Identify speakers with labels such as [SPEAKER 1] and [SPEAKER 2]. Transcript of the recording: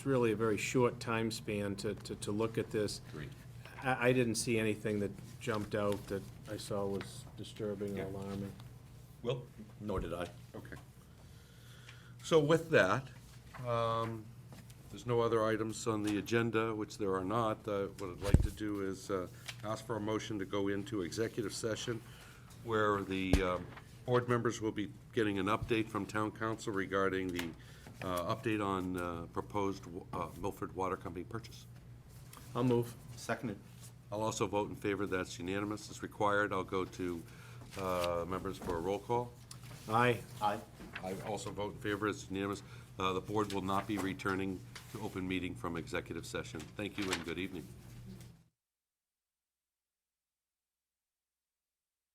[SPEAKER 1] it's really a very short time span to, to, to look at this.
[SPEAKER 2] Agreed.
[SPEAKER 1] I, I didn't see anything that jumped out that I saw was disturbing or
[SPEAKER 2] Yeah.
[SPEAKER 1] alarming.
[SPEAKER 2] Well, nor did I. Okay. So with that, um, there's no other items on the agenda, which there are not. Uh, What I'd like to do is uh, ask for a motion to go into executive session where the um, board members will be getting an update from town council regarding the uh, update on uh, proposed uh, Milford Water Company purchase.
[SPEAKER 1] I'll move.
[SPEAKER 3] Seconded.
[SPEAKER 2] I'll also vote in favor, that's unanimous, as required. I'll go to uh, members for a roll call.
[SPEAKER 1] Aye.
[SPEAKER 3] Aye.
[SPEAKER 2] I also vote in favor, it's unanimous. Uh, The board will not be returning to open meeting from executive session. Thank you and good evening.